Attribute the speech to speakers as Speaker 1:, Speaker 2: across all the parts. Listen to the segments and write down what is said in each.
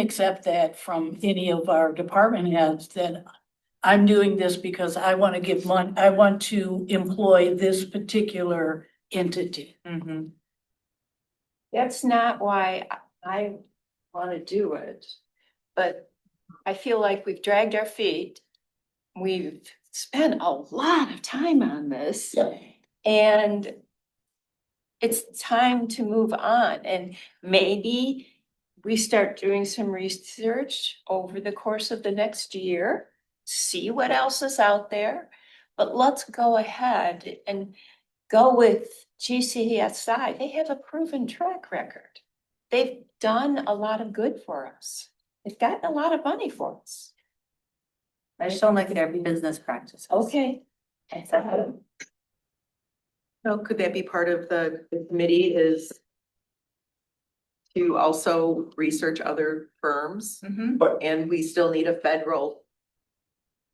Speaker 1: accept that from any of our department heads that I'm doing this because I want to give money, I want to employ this particular entity.
Speaker 2: Mhm.
Speaker 3: That's not why I- I wanna do it, but I feel like we've dragged our feet. We've spent a lot of time on this and it's time to move on and maybe we start doing some research over the course of the next year, see what else is out there. But let's go ahead and go with GCSI. They have a proven track record. They've done a lot of good for us. They've gotten a lot of money for us.
Speaker 2: I just don't like their business practices.
Speaker 3: Okay.
Speaker 4: Well, could that be part of the the committee is to also research other firms
Speaker 2: Mhm.
Speaker 4: and we still need a federal,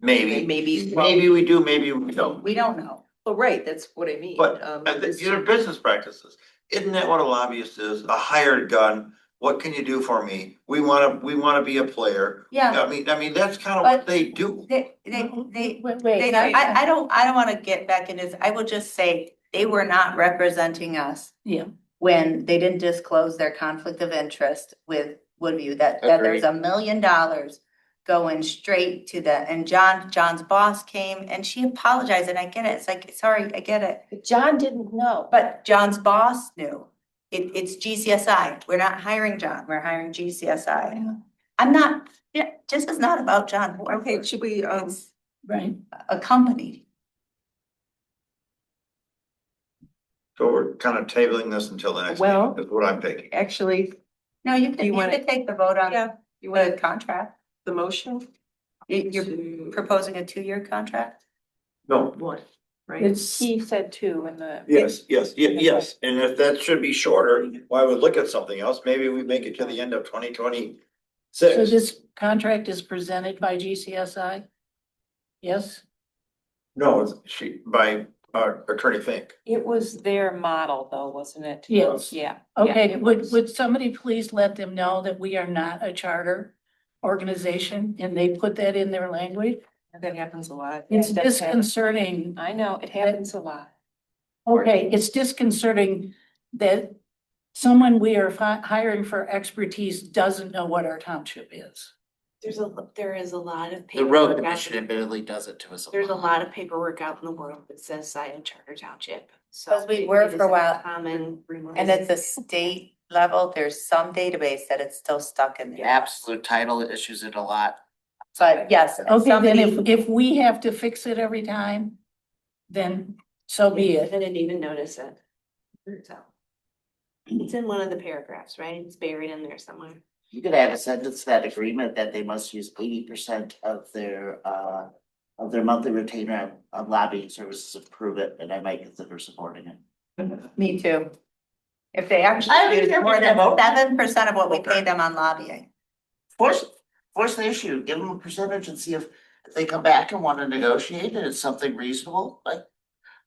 Speaker 5: Maybe,
Speaker 4: maybe, well,
Speaker 5: maybe we do, maybe we don't.
Speaker 2: We don't know.
Speaker 4: well, oh, right, that's what I mean.
Speaker 5: But
Speaker 4: um,
Speaker 5: uh, th-
Speaker 4: it's-
Speaker 5: these are business practices. Isn't that what a lobbyist is? A hired gun? What can you do for me? We wanna, we wanna be a player.
Speaker 2: Yeah,
Speaker 5: I mean, I mean, that's kind of what
Speaker 2: But-
Speaker 5: they do.
Speaker 2: they, they, they,
Speaker 1: Wait,
Speaker 2: they,
Speaker 1: wait,
Speaker 2: I, I don't, I don't wanna get back into this. I will just say, they were not representing us.
Speaker 1: Yeah.
Speaker 2: When they didn't disclose their conflict of interest with Woodview, that, that there's a million dollars going straight to the, and John, John's boss came and she apologized, and I get it. It's like, sorry, I get it.
Speaker 3: But John didn't know.
Speaker 2: But John's boss knew. It, it's GCSI. We're not hiring John, we're hiring GCSI. I'm not, yeah, this is not about John
Speaker 4: Okay,
Speaker 2: Horford,
Speaker 4: should we, um,
Speaker 1: right?
Speaker 2: a company.
Speaker 5: So we're kind of tabling this until the next
Speaker 4: Well-
Speaker 5: meeting, is what I'm thinking.
Speaker 4: actually,
Speaker 2: No, you
Speaker 4: Do
Speaker 2: could,
Speaker 4: you
Speaker 2: you
Speaker 4: wanna-
Speaker 2: could take the vote on
Speaker 4: yeah, you
Speaker 2: the
Speaker 4: want
Speaker 2: contract.
Speaker 4: the motion?
Speaker 2: You- You're
Speaker 4: to-
Speaker 2: proposing a two-year contract?
Speaker 5: No,
Speaker 4: One, right?
Speaker 1: It's,
Speaker 3: He said two in the.
Speaker 5: yes, yes, ye- yes. And if that should be shorter, why would look at something else? Maybe we make it to the end of twenty twenty
Speaker 1: so
Speaker 5: six.
Speaker 1: this contract is presented by GCSI? Yes,
Speaker 5: No, it's she, by uh, Attorney Fink.
Speaker 3: It was their model though, wasn't it?
Speaker 1: yes.
Speaker 3: Yeah. yeah,
Speaker 1: Okay,
Speaker 3: it
Speaker 1: would,
Speaker 3: was.
Speaker 1: would somebody please let them know that we are not a charter organization and they put that in their language?
Speaker 4: That happens a lot.
Speaker 1: It's
Speaker 3: Yeah, that's happened.
Speaker 1: disconcerting.
Speaker 3: I know, it happens a lot.
Speaker 1: Okay, it's disconcerting that someone we are fi- hiring for expertise doesn't know what our township is.
Speaker 6: There's a, lo- there is a lot of
Speaker 7: The road
Speaker 6: paperwork, out-
Speaker 7: commission admittedly does it to us.
Speaker 6: there's a lot of paperwork out in the world that says Zion Charter Township, so.
Speaker 2: 'Cause we were
Speaker 6: it
Speaker 2: for a
Speaker 6: isn't
Speaker 2: while,
Speaker 6: Common rumor.
Speaker 2: And at the state level, there's some database that it's still stuck in
Speaker 7: The
Speaker 2: there.
Speaker 7: absolute title issues it a lot.
Speaker 2: But yes,
Speaker 1: Okay, then
Speaker 2: somebody,
Speaker 1: if, if we have to fix it every time, then so be
Speaker 6: I
Speaker 1: it.
Speaker 6: didn't even notice it. So. It's in one of the paragraphs, right? It's buried in there somewhere.
Speaker 7: You could add a sentence to that agreement that they must use eighty percent of their uh. Of their monthly retainer on lobbying services to prove it, and I might consider supporting it.
Speaker 2: me too. If they
Speaker 7: I don't
Speaker 2: actually use
Speaker 7: care if
Speaker 2: more
Speaker 7: they
Speaker 2: than
Speaker 7: vote.
Speaker 2: seven percent of what we pay them on lobbying.
Speaker 7: Force, force the issue, give them a percentage and see if if they come back and wanna negotiate and it's something reasonable, like.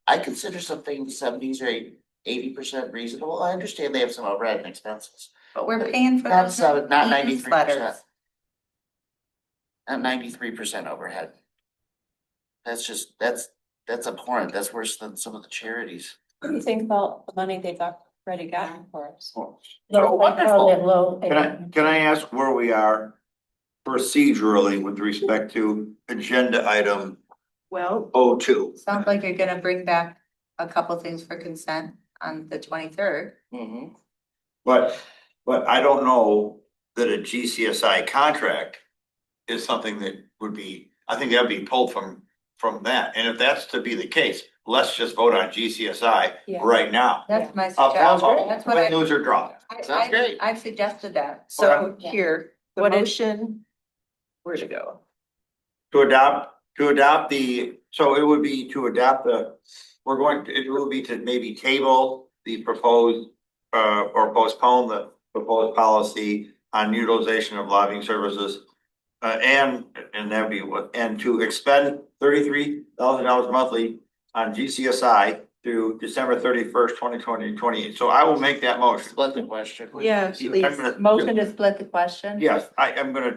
Speaker 7: I consider something seventies or eighty percent reasonable. I understand they have some overhead and expenses.
Speaker 2: But we're paying for
Speaker 7: Not
Speaker 2: those
Speaker 7: seven, not ninety-three percent.
Speaker 2: newsletters.
Speaker 7: At ninety-three percent overhead. That's just, that's, that's abhorrent, that's worse than some of the charities.
Speaker 3: What do you think about the money they've got- already gotten for us?
Speaker 1: Low-
Speaker 7: Oh, wonderful.
Speaker 1: that low-
Speaker 5: Can I, can I ask where we are procedurally with respect to agenda item
Speaker 4: Well,
Speaker 5: O two?
Speaker 2: Sounds like you're gonna bring back a couple things for consent on the twenty-third.
Speaker 7: Mm-hmm.
Speaker 5: But, but I don't know that a GCSI contract is something that would be, I think that'd be pulled from, from that. And if that's to be the case, let's just vote on GCSI
Speaker 3: Yeah.
Speaker 5: right now.
Speaker 2: That's my
Speaker 5: Up, down,
Speaker 2: suggestion. That's what
Speaker 5: win,
Speaker 2: I,
Speaker 5: lose or draw.
Speaker 7: Sounds
Speaker 2: I,
Speaker 7: great.
Speaker 2: I, have suggested that.
Speaker 4: so
Speaker 3: Yeah.
Speaker 4: here, the
Speaker 3: What is-
Speaker 4: motion, where'd it go?
Speaker 5: To adopt, to adopt the, so it would be to adopt the, we're going, it will be to maybe table the proposed. Uh, or postpone the proposed policy on utilization of lobbying services. Uh, and, and that'd be what, and to expend thirty-three thousand dollars monthly on GCSI through December thirty first, twenty twenty, twenty eight. So I will make that motion.
Speaker 7: Split the question.
Speaker 4: Yeah,
Speaker 5: I'm
Speaker 4: please.
Speaker 5: gonna-
Speaker 2: Motion to split the question?
Speaker 5: Yes, I am gonna